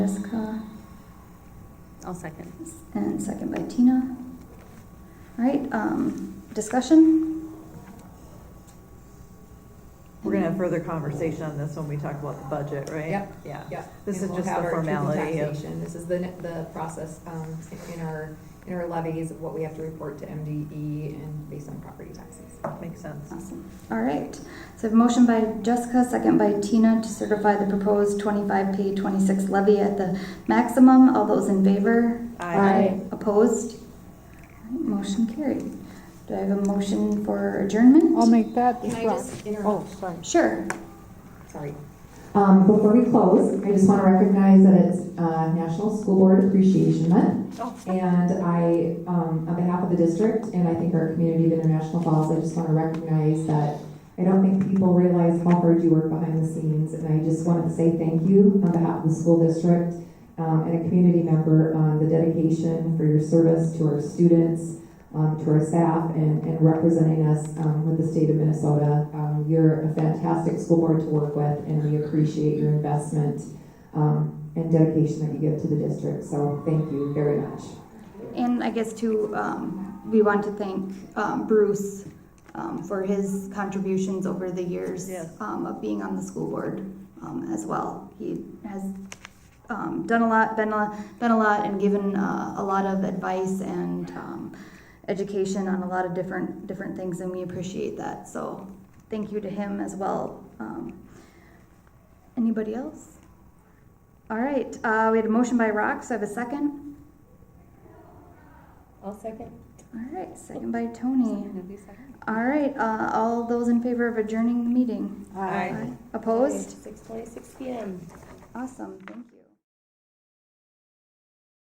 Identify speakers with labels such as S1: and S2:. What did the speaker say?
S1: Jessica,
S2: I'll second.
S1: and second by Tina. All right, um, discussion?
S3: We're gonna have further conversation on this when we talk about the budget, right?
S4: Yep.
S3: Yeah.
S4: Yeah.
S3: This
S4: and
S3: is
S4: we'll
S3: just
S4: have
S3: the
S4: our triple
S3: formality of-
S4: taxation. This is the, the process, um, in our, in our levies of what we have to report to MDE and based on property taxes.
S3: Makes sense.
S1: Awesome. All right, so I have a motion by Jessica, second by Tina to certify the proposed twenty-five P twenty-six levy at the maximum. All those in favor?
S3: Aye.
S1: Opposed? All right, Motion carried. Do I have a motion for adjournment?
S5: I'll make that.
S4: Can I
S5: well,
S4: just interrupt?
S5: Oh, sorry.
S1: Sure.
S4: Sorry. Um, before we close, I just want to recognize that it's uh, National School Board Appreciation Month.
S3: Oh.
S4: And I, um, on behalf of the district and I think our community of International Falls, I just want to recognize that I don't think people realize how hard you work behind the scenes. And I just wanted to say thank you on behalf of the school district um, and a community member on the dedication for your service to our students, um, to our staff, and, and representing us um, with the state of Minnesota. Um, you're a fantastic school board to work with, and we appreciate your investment um, and dedication that you give to the district. So thank you very much.
S1: And I guess too, um, we want to thank, um, Bruce, um, for his contributions over the years.
S3: Yes.
S1: Um, of being on the school board, um, as well. He has, um, done a lot, been a, been a lot and given, uh, a lot of advice and, um, education on a lot of different, different things and we appreciate that. So thank you to him as well. Um, anybody else? All right, uh, we had a motion by Rock, so I have a second.
S2: I'll second.
S1: All right, second by Tony.
S2: Nobody second?
S1: All right, uh, all those in favor of adjourning the meeting?
S3: Aye.
S1: Opposed?
S2: Six twenty-six PM.
S1: Awesome, thank you.